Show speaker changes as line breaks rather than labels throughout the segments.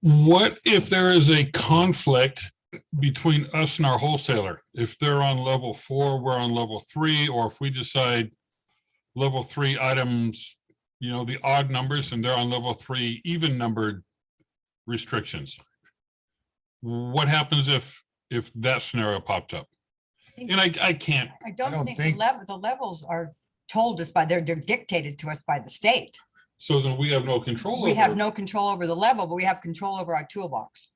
What if there is a conflict between us and our wholesaler? If they're on level four, we're on level three, or if we decide level three items, you know, the odd numbers and they're on level three, even numbered restrictions. What happens if, if that scenario popped up?
think-
And I, I can't
I
don't
don't think the
think-
level, the levels are told us by, they're they're dictated to us by the state.
So then we have no control
We have
over, it.
no control over the level, but we have control over our toolbox.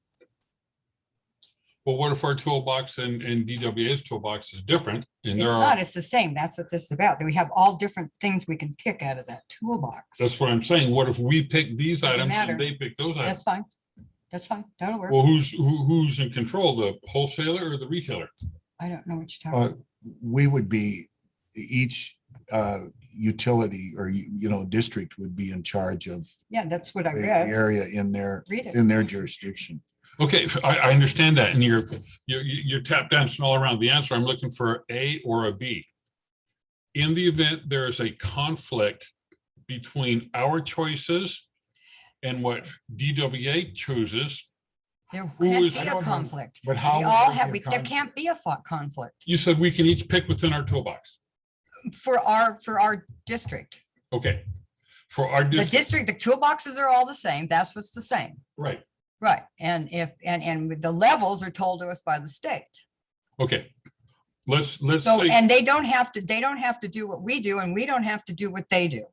but what if our toolbox and, and DWA's toolbox is different? And
It's
there
not,
are,
it's the same. That's what this is about. that We have all different things we can pick out of that toolbox.
that's what I'm saying. What if we pick these
Doesn't
items
matter.
and they pick those
That's
items?
fine. That's fine. That'll work.
Well, who's, who, who's in control, the wholesaler or the retailer?
I don't know what you're talking
Uh,
about.
we would be, each uh, utility or, you you know, district would be in charge of
Yeah, that's what I
the
read.
area in their,
Read it.
in their jurisdiction.
Okay, I, I understand that. And you're, you're, you're tap dancing all around the answer. I'm looking for A or a B. In the event there is a conflict between our choices and what DWA chooses,
There
who
can't
is-
be
I
a
don't know.
conflict.
But
We
how? would
all
there
have, we-
be a
there
conflict?
can't be a fo- conflict
you said we can each pick within our toolbox.
for our, for our district.
Okay, for our
The
district,
district, the toolboxes are all the same. That's what's the same.
right,
Right, and if, and, and with the levels are told to us by the state.
okay. Let's, let's
So,
say,
and they don't have to, they don't have to do what we do, and we don't have to do what they do.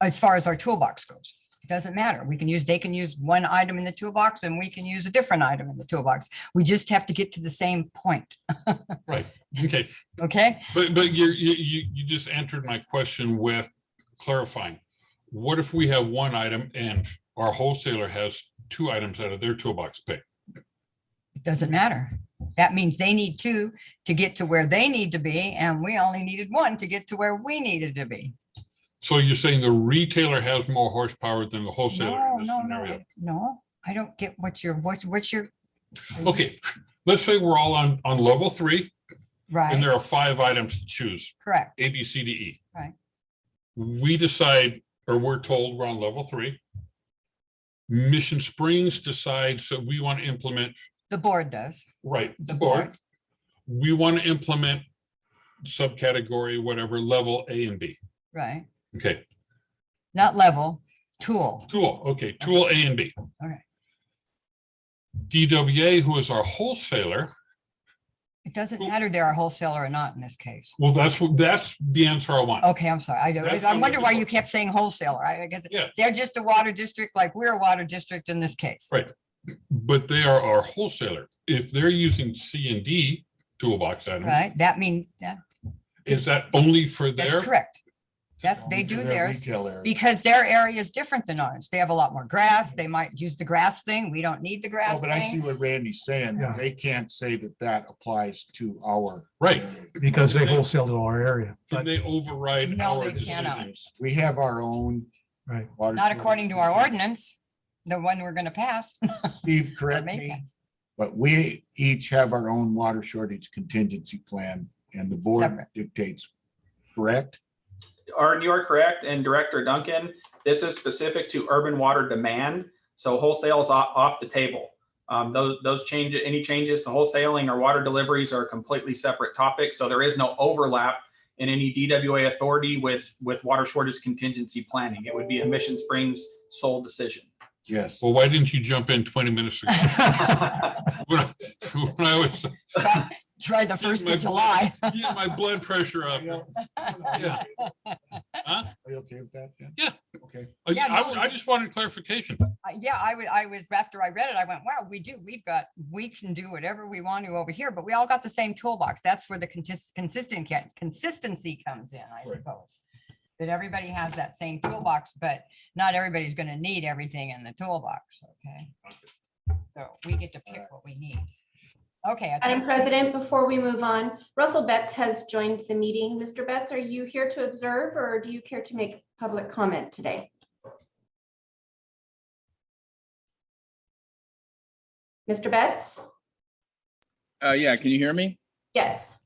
As far as our toolbox goes, it doesn't matter. We can use, they can use one item in the toolbox, and we can use a different item in the toolbox. We just have to get to the same point,
right, okay,
okay?
but, but you're, you, you, you just answered my question with clarifying. What if we have one item and our wholesaler has two items out of their toolbox pick?
It doesn't matter. That means they need two to get to where they need to be, and we only needed one to get to where we needed to be.
So you're saying the retailer has more horsepower than the wholesaler
No,
in this
no, no,
scenario?
I- no, I don't get what your, what's, what's your,
Okay, let's say we're all on, on level three and
right,
there are five items to choose.
correct,
A, B, C, D, E.
Right.
We decide, or we're told we're on level three. Mission Springs decides that we want to implement,
the board does.
right,
The
the
board.
board. We want to implement subcategory, whatever, level A and B.
Right,
Okay,
not level, tool,
tool, okay, tool A and B.
Okay.
DWA, who is our wholesaler,
it doesn't
Tool.
matter they're a wholesaler or not in this case.
well, that's, what that's the answer I want.
Okay, I'm sorry, I don't,
That's
I
not
wonder
what
why
they
you
were.
kept saying wholesaler, I I guess,
Yeah.
they're just a water district like we're a water district in this case.
Right. But they are our wholesaler. If they're using C and D toolbox items,
Right, that means, that,
Is that only for their?
that's correct. That,
Only
they
for
do
their
theirs.
Retail area.
Because their area is different than ours. They have a lot more grass. They might use the grass thing. We don't need the
Oh,
grass
But I see
thing.
what Randy's saying.
Yeah.
They can't say that that applies to our.
Right.
area.
because they wholesale to our area,
Can
but,
they override
No,
our
they cannot.
decisions?
We have our own.
right.
water
Not
storage
according to our
system.
ordinance, the one we're gonna pass.
Steve,
or
correct
make
me,
us
but we each have our own water shortage contingency plan and the board
Separate.
dictates, correct?
Arden, you are correct, and Director Duncan, this is specific to urban water demand, so wholesale is o- off the table. Um, Those, those changes, any changes to wholesaling or water deliveries are completely separate topics, so there is no overlap in any DWA authority with, with water shortage contingency planning. It would be a Mission Springs sole decision.
Yes.
Well, why didn't you jump in twenty minutes ago? When I when I was,
try- Try the first
my
of July.
yeah, my blood pressure up.
Are
Yeah. Huh?
you okay with that then?
Yeah.
Okay.
I,
Yeah,
I
no,
would- I
you-
just wanted clarification.
Uh, Yeah, I was, I was, after I read it, I went, wow, we do, we've got, we can do whatever we want to over here, but we all got the same toolbox. That's where the contis- consistent, ca- consistency comes in, I
Right.
suppose. That everybody has that same toolbox, but not everybody's gonna need everything in the toolbox, okay? So we get to pick what we need. Okay. I
Madam
think-
President, before we move on, Russell Betts has joined the meeting. Mr. Betts, are you here to observe or do you care to make public comment today? Mr. Betts?
Uh, yeah, can you hear me?
Yes.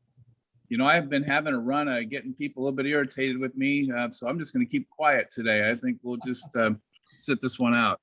You know, I've been having a run, uh, getting people a little bit irritated with me, uh, so I'm just gonna keep quiet today. I think we'll just, um, uh, sit this one out.